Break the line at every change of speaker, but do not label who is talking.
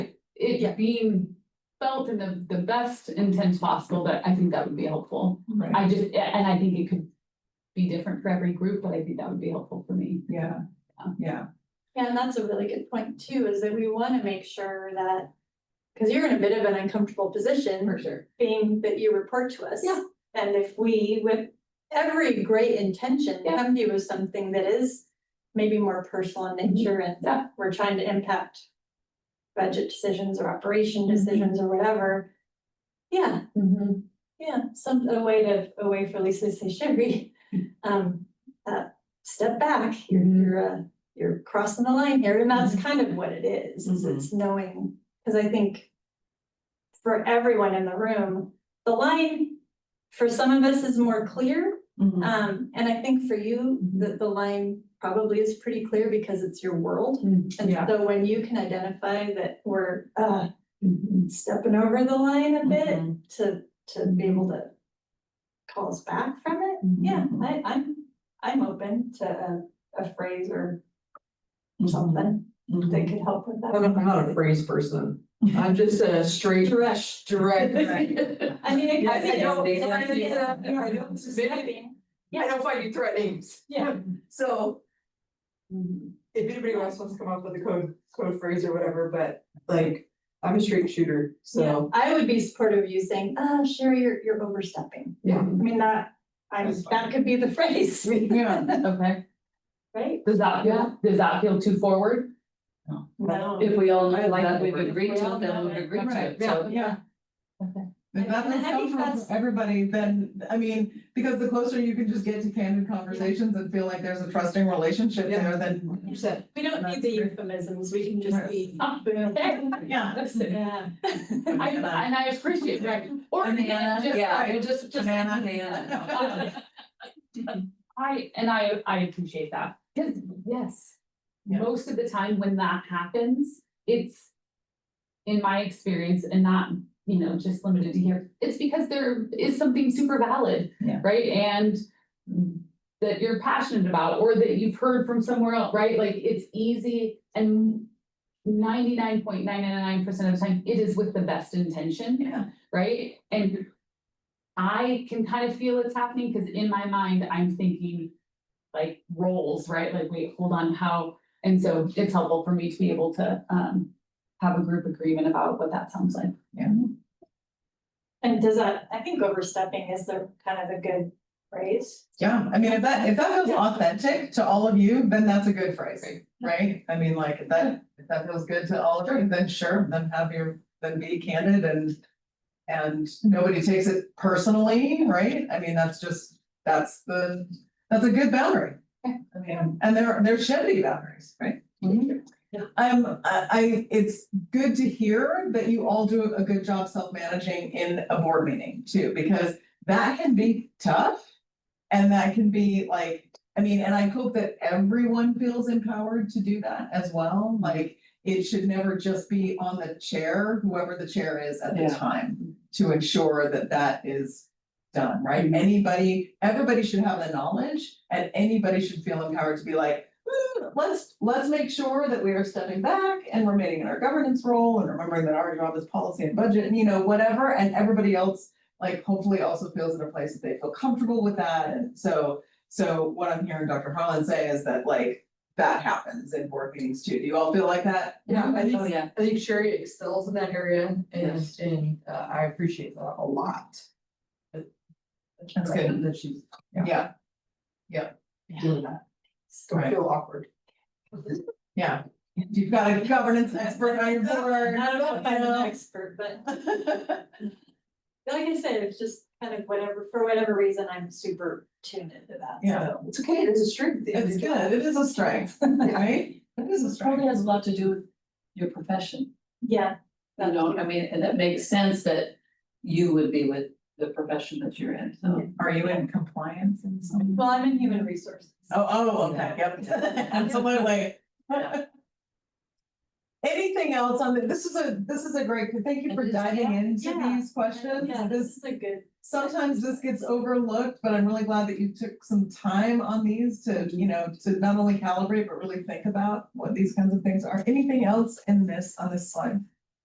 it being felt in the, the best intent possible, but I think that would be helpful.
Right.
I just, and I think it could be different for every group, but I think that would be helpful for me.
Yeah, yeah,
Yeah, and that's a really good point too, is that we wanna make sure that, cause you're in a bit of an uncomfortable position,
sure.
being that you report to us.
Yeah.
And if we, with every great intention,
Yeah.
come to you with something that is maybe more personal in nature and
Mm-hmm. Yeah.
we're trying to impact budget decisions or operation decisions
Mm-hmm.
or whatever. Yeah, yeah, some, a way to, a way for Lisa to say, Sherry, um, uh, step back, you're, you're, uh, you're crossing the line here, and that's kind of what it is, is it's knowing, cause I think for everyone in the room, the line, for some of us is more clear,
Mm-hmm.
um, and I think for you, the, the line probably is pretty clear because it's your world.
Mhm.
And
Yeah.
so when you can identify that we're, uh,
Mm-hmm.
stepping over the line a bit
Mm-hmm.
to, to be able to call us back from it, yeah,
Mm-hmm.
I, I'm, I'm open to a, a phrase or something that could help with
I'm
that.
not, I'm not a phrase person. I'm just a straight. Direct. Direct.
I mean, it-
Yes,
I think.
yes,
it's-
they like
it's-
to-
you know, it's just stepping.
I don't find you threatening.
Yeah.
So if anybody else wants to come up with a code, code phrase or whatever, but like, I'm a straight shooter,
Yeah,
so.
I would be supportive of you saying, uh, Sherry, you're, you're overstepping.
Yeah.
I mean, that, I,
That's fine.
that could be the phrase,
yeah.
Okay,
right?
does that feel, does that feel too forward?
No.
If we all
I
know
like
that
the
we've
word.
agreed to, it, then we've
Right,
agreed to it,
yeah,
so.
yeah.
Okay.
If that
And I
makes
think
sense
that's-
for everybody, then, I mean, because the closer you can just get to candid conversations and feel like there's a trusting relationship
Yeah.
there, then.
Percent.
We don't
That's
need the
true.
euphemisms, we can just
Right.
be.
Yeah.
Listen,
Yeah.
I, and I appreciate, right, or
Banana,
just-
yeah.
or just, just.
Banana.
Banana. I, and I, I appreciate that, because, yes,
Yeah.
most of the time when that happens, it's. In my experience, and not, you know, just limited to here, it's because there is something super valid.
Yeah.
Right, and that you're passionate about, or that you've heard from somewhere else, right, like, it's easy and. Ninety-nine point nine nine nine percent of the time, it is with the best intention
Yeah.
right? And I can kind of feel it's happening, because in my mind, I'm thinking like roles, right? Like, wait, hold on, how? And so it's helpful for me to be able to um have a group agreement about what that sounds like.
And does that, I think overstepping is the kind of a good phrase.
Yeah, I mean, if that, if that feels authentic to all of you, then that's a good phrase, right? I mean, like, if that, if that feels good to all of you, then sure, then have your, then be candid and. And nobody takes it personally, right? I mean, that's just, that's the, that's a good boundary. I mean, and there, there should be boundaries, right?
Mm-hmm.
Um, I, I, it's good to hear that you all do a good job self-managing in a board meeting too, because that can be tough. And that can be like, I mean, and I hope that everyone feels empowered to do that as well, like. It should never just be on the chair, whoever the chair is at the
Yeah.
time, to ensure that that is done, right? Anybody, everybody should have the knowledge and anybody should feel empowered to be like. "Ooh, Let's, let's make sure that we are stepping back and remaining in our governance role and remembering that our job is policy and budget and you know, whatever, and everybody else like hopefully also feels in a place that they feel comfortable with that. And so, so what I'm hearing Dr. Holland say is that like that happens in board meetings too. Do you all feel like that?
Mm-hmm.
Yeah, I
think-
think, I think Sherry excels in that area and, and uh, I appreciate that a lot.
That's good.
That she's
Yeah,
doing that. Don't
Right.
feel awkward.
yeah. You've got a governance expert on your board.
I don't know if I'm
you
an
know?
expert, but like I said, it's just kind of whatever, for whatever reason, I'm super tuned into that.
Yeah.
so.
It's okay, it's a strength.
It's good. It is a strength, right? It is a strength.
Probably has a lot to do with your profession,
Yeah,
you know, I mean, and that makes sense that you would be with the profession that you're in, so.
Are you in compliance in some?
well, I'm in human resources.
Oh, oh, okay, yep, absolutely. Anything else on the, this is a, this is a great, thank you for
It is,
diving into
Yeah.
these questions.
Yeah, this
This,
is a good,
sometimes this gets overlooked, but I'm really glad that you took some time on these to, you know, to not only calibrate, but really think about what these kinds of things are. Anything else in this, on this slide?